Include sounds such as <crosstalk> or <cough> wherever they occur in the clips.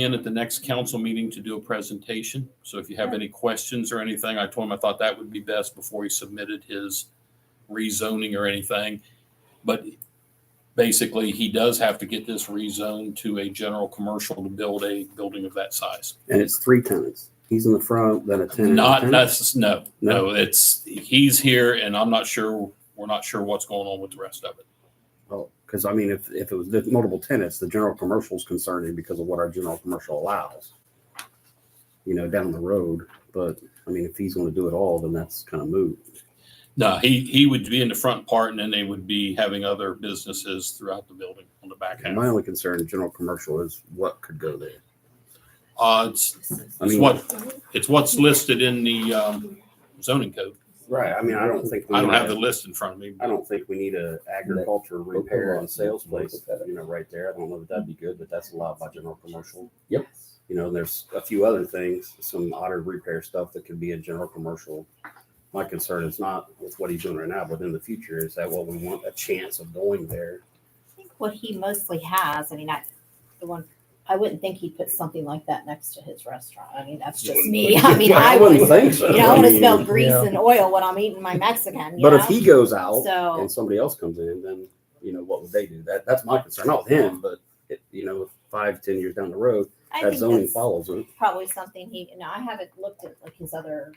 in at the next council meeting to do a presentation. So if you have any questions or anything, I told him I thought that would be best before he submitted his rezoning or anything. But basically, he does have to get this rezoned to a general commercial to build a building of that size. and it's three tenants. He's in the front, then a tenant. Not, tenant. necess- no, no, it's, he's here and I'm not sure, we're not sure what's going on with the rest of it. Well, because Oh, I mean, if, if it was the multiple tenants, the general commercial's concerning because of what our general commercial allows. You know, down the road, but I mean, if he's gonna do it all, then that's kind of moot. No, he, he would be in the front part and then they would be having other businesses throughout the building on the back And my half. only concern in general commercial is what could go there. Uh, it's, I it's mean- what, it's what's listed in the, um, zoning code. Right, I mean, I don't think. we I don't need have to- the list in front of me. I don't think we need a agriculture repair and sales place, Look at it. you know, right there. I don't know if that'd be good, but that's allowed by general commercial. Yep. You know, and there's a few other things, some auto repair stuff that could be in general commercial. My concern is not with what he's doing right now, but in the future, is that what we want, a chance of going there? I think what he mostly has, I mean, I, the one, I wouldn't think he'd put something like that next to his restaurant. I mean, that's just me. <laughs> I mean, I wouldn't would, think so. you know, I I want to mean, smell grease Yeah. and oil when I'm eating my Mexican, you But if know? he goes out So- and somebody else comes in, then, you know, what would they do? That, that's my concern, not with him, but, it- you know, five, ten years down the road, I that think zoning that's follows it. probably something he, you know, I haven't looked at like his other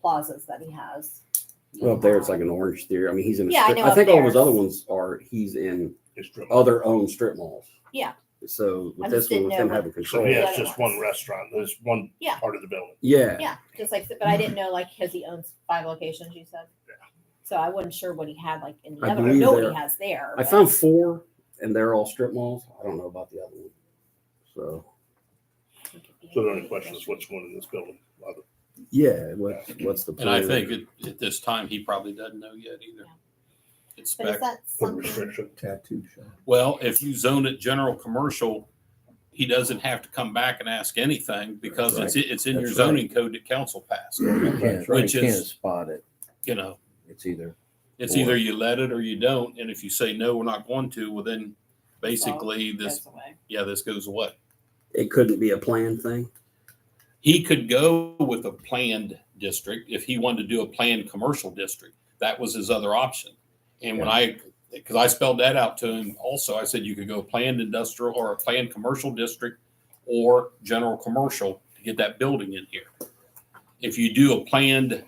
plazas that he has. Well, up there it's like an orange theory. I mean, he's in. A Yeah, I strip. know I, up think all his there. other ones are he's in It's true. other owned strip malls. Yeah. So with I this just one, didn't with him know having So control. Oh, yeah, Oh, Yeah. it's just one restaurant. There's one Yeah. part of the building. Yeah, just like, but I didn't know like, cause he owns five locations, you said? So I wasn't sure what he had like in the I other, I believe know what he there- has there. I but- found four, and they're all strip malls. I don't know about the other one. So So the only question is what's going in this building. yeah, what what's the And plan? I think at, at this time, he probably doesn't know yet either. Yeah. It's But is spec, that Put a something? restriction. tattoo shop. well, if you zone it general commercial, he doesn't have to come back and ask anything because it's, it's in your That's right. zoning code that council passed, You can't, you Which can't is- spot it. you know? It's either, It's Or- either you let it or you don't, and if you say no, we're not going to, well then, basically this, goes away. yeah, this goes away. it couldn't be a plan thing. He could go with a planned district if he wanted to do a planned commercial district. That was his other option. And when I, because I spelled that out to him also, I said you could go planned industrial or a planned commercial district or general commercial to get that building in here. If you do a planned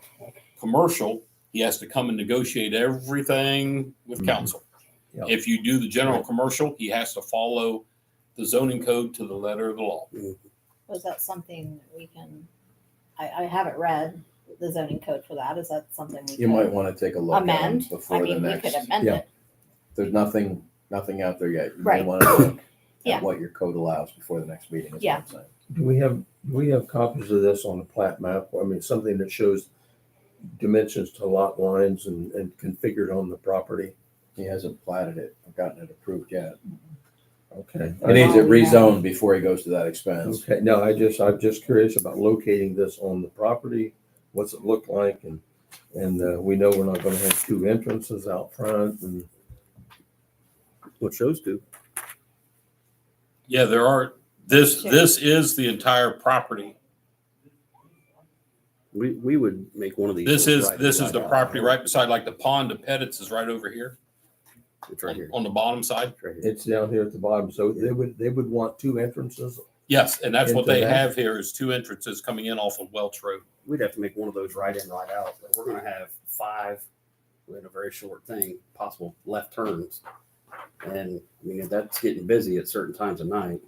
commercial, he has to come and negotiate everything with Mhm. council. Yeah. If you do the general commercial, he has to follow the zoning code to the letter of the law. Was that something we can, I, I haven't read the zoning code for that. Is that something we you might could want to take a look at them amend? I before the mean, we could next. amend Yeah. it. There's nothing, nothing out there yet. You may Right. want to look <coughs> Yeah. at what your code allows before the next meeting. is what Yeah. I'm saying. Do we have, do we have copies of this on the plat map? I mean, something that shows dimensions to lot lines and, and configured on the property? He hasn't platted it, or gotten it approved yet. Okay. He needs it it rezoned before he goes to that expense. Okay, no, I just, I'm just curious about locating this on the property. What's it look like? And, and uh, we know we're not gonna have two entrances out front and. What shows do? Yeah, there are, this, Sure. this is the entire property. We we would make one of these. This ones is, right- this is the right property out. right beside, like the pond to Pettit's is right over here, It's right on here. on the bottom side. It's right here. It's down here at the bottom, so they would, they would want two entrances. Yes, and that's what Into they that. have here is two entrances coming in off of Welch Road. We'd have to make one of those right in, right out. But we're gonna have five in a very short thing, possible left turns. And I mean, that's getting busy at certain times of night.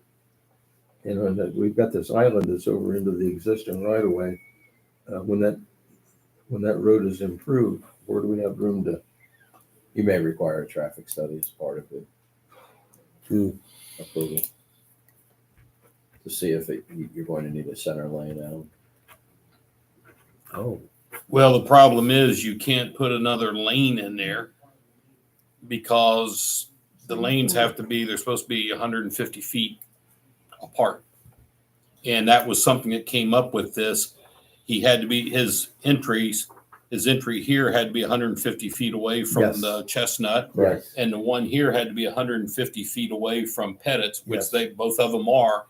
You know, and that we've got this island that's over into the existing right of way. Uh, when that, when that road is improved, where do we have room to? You may require a traffic study as part of the Hmm. approval. To see if it- you- you're going to need a center lane out. Oh, Well, the problem is you can't put another lane in there because the lanes have to be, they're supposed to be hundred and fifty feet apart. And that was something that came up with this. He had to be, his entries his entry here had to be 150 feet away from Yes. the Chestnut, Right. and the one here had to be 150 feet away from Pettit's, which Yes. they both of them are.